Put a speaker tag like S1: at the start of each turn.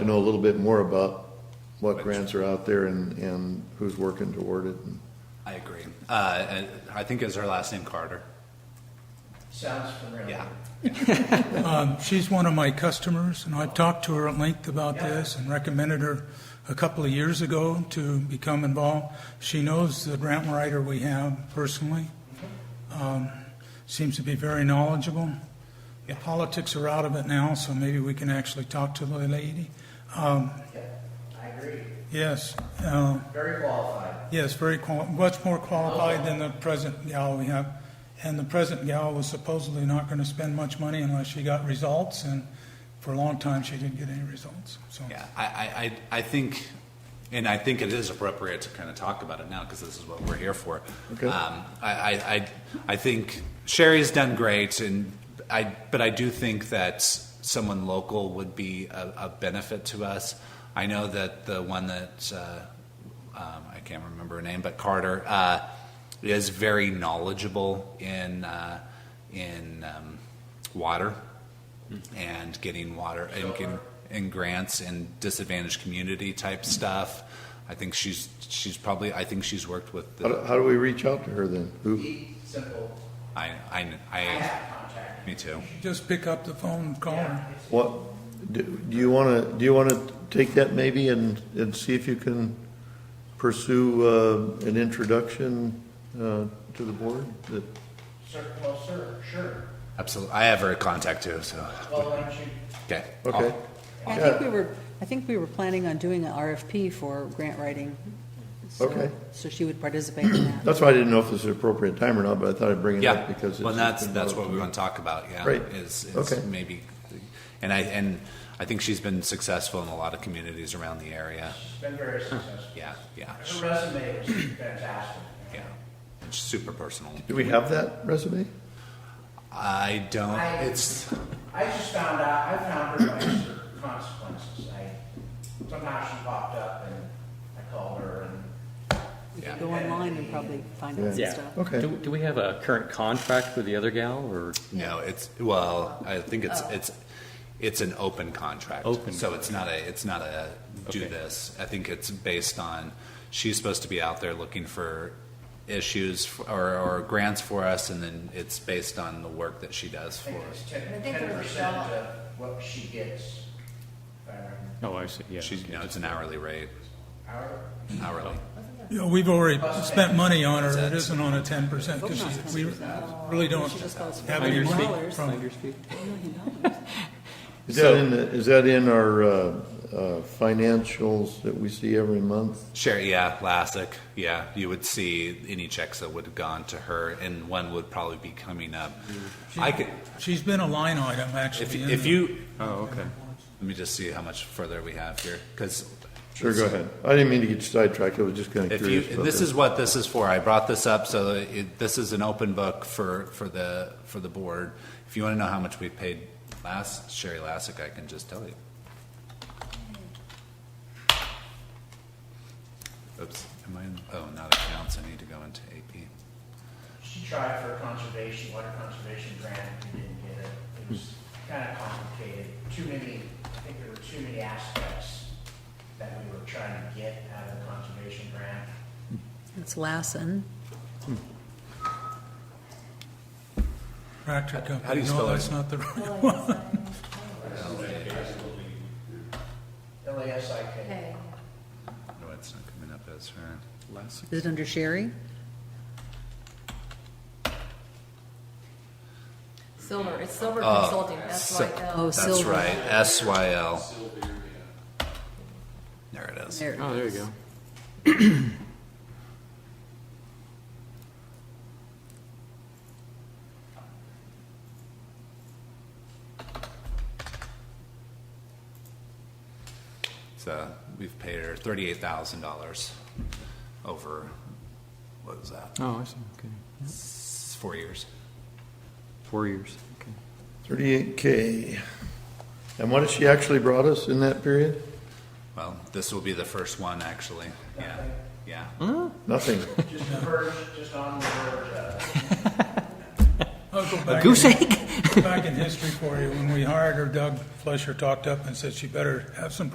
S1: to know a little bit more about what grants are out there and, and who's working toward it. and-
S2: I agree. Uh, and I think is her last name Carter.
S3: Sounds familiar.
S2: Yeah.
S4: Um, She's one of my customers, and I've talked to her at length about this and recommended her a couple of years ago to become involved. She knows the grant writer we have personally, um, seems to be very knowledgeable. The politics are out of it now, so maybe we can actually talk to the lady.
S3: I agree.
S4: Yes, uh,
S3: Very qualified.
S4: yes, very qual, much more qualified than the present gal we have. And the present gal was supposedly not going to spend much money unless she got results, and for a long time, she didn't get any results, so.
S2: Yeah. I, I, I, I think, and I think it is appropriate to kind of talk about it now because this is what we're here for.
S1: Okay.
S2: Um, I, I, I, I think Sherry's done great, and I, but I do think that someone local would be a, a benefit to us. I know that the one that uh, um, I can't remember her name, but Carter uh, is very knowledgeable in uh, in um, water and getting water and getting and grants in disadvantaged community type stuff. I think she's she's probably I think she's worked with
S1: How, do-
S2: the,
S1: how do we reach out to her then? Who,
S3: Eat simple.
S2: I, I
S3: I
S2: I
S3: have contact.
S2: me too.
S4: Just pick up the phone and call her.
S3: Yeah, it's-
S1: what, do do you want to, do you want to take that maybe and, and see if you can pursue, uh, an introduction, uh, to the board? That-
S3: Sir, well, sir, sure.
S2: Absolutely, I have her contact too. So
S3: Well, why don't you,
S2: okay,
S1: Okay,
S2: Oh.
S5: I think we were, I think we were planning on doing an RFP for grant writing. so-
S1: Okay.
S5: So she would participate in that.
S1: that's why I didn't know if this is an appropriate time or not, but I thought I'd bring it
S2: Yeah,
S1: up because it's.
S2: well,
S1: just
S2: that's
S1: been
S2: that's
S1: brought
S2: what
S1: to
S2: we
S1: me.
S2: want to talk about. Yeah,
S1: Great.
S2: is, is
S1: Okay.
S2: maybe, and I and I think she's been successful in a lot of communities around the area.
S3: she's been very successful.
S2: Yeah, yeah,
S3: Her resume was fantastic.
S2: yeah. It's super personal.
S1: Do we have that resume?
S2: I don't.
S3: I-
S2: It's
S3: I just found out, I found her by certain consequences. I, somehow she popped up and I called her and
S5: You
S2: Yeah.
S5: could go online and probably find out some
S1: Yeah.
S5: stuff.
S1: Okay.
S6: Do, do we have a current contract with the other gal, or?
S2: no. It's well. I think it's it's it's an open contract.
S6: Open.
S2: So it's not a it's not a do
S6: Okay.
S2: this. I think it's based on she's supposed to be out there looking for issues for, or, or grants for us, and then it's based on the work that she does
S3: I
S2: for
S3: think
S2: us.
S3: it's ten,
S7: I think
S3: ten
S7: there was
S3: percent
S7: a-
S3: of what she gets. if I remember.
S6: Oh, I see, yeah.
S2: She's,
S6: okay.
S2: you know, it's an hourly rate,
S3: Our,
S2: hourly.
S4: You know, we've already spent money on her, it isn't on a ten percent,
S5: Hope
S4: because
S5: not
S4: we
S5: 10%.
S4: really don't
S5: She just calls for
S4: have any
S6: Find your
S4: money
S5: dollars.
S6: feet,
S4: from
S6: find your feet.
S1: Is that in, the- is that in our, uh, uh, financials that we see every month?
S2: Sure, yeah, Lassick, yeah. You would see any checks that would have gone to her, and one would probably be coming up. I could,
S4: She's been a line item,
S2: if,
S4: actually. in
S2: if
S4: the-
S2: you,
S6: Oh, okay.
S2: let me just see how much further we have here, because
S1: Sure, go ahead. I didn't mean to get you sidetracked, I was just kind of
S2: if you,
S1: curious about
S2: this is what this is for. I brought this up, so it, this is an open book for, for the, for the board. If you want to know how much we paid last, Sherry Lassick, I can just tell you. Oops, am I, in- oh, not accounts, I need to go into AP.
S3: She tried for a conservation, water conservation grant, we didn't get it. It was kind of complicated, too many, I think there were too many aspects that we were trying to get out of the conservation grant.
S5: It's Lassen.
S4: Tractor
S2: how do you
S4: company,
S2: spell
S4: no,
S2: it?
S4: that's not the right
S7: Well,
S4: one.
S3: L A S I K.
S7: okay.
S2: No, it's not coming up as her.
S5: Is it under Sherry?
S7: Silver, it's Silver
S2: Oh,
S7: Consulting, that's
S2: so-
S7: like,
S5: Oh,
S7: uh,
S5: s-
S2: That's
S5: Silver.
S2: right, S-Y-L. There it is.
S5: There it
S6: Oh, there you
S5: is.
S6: go.
S2: So we've paid her thirty-eight thousand dollars over, what was that,
S6: Oh, I see, okay.
S2: s- four years?
S6: Four years, okay.
S1: Thirty-eight K. And what has she actually brought us in that period?
S2: Well, this will be the first one, actually. Yeah, yeah.
S1: Nothing.
S3: Just the verge, just on the verge of.
S4: I'll go back
S6: goose
S4: in- Back in history for you, when we hired her, Doug Flesher talked up and said she better have some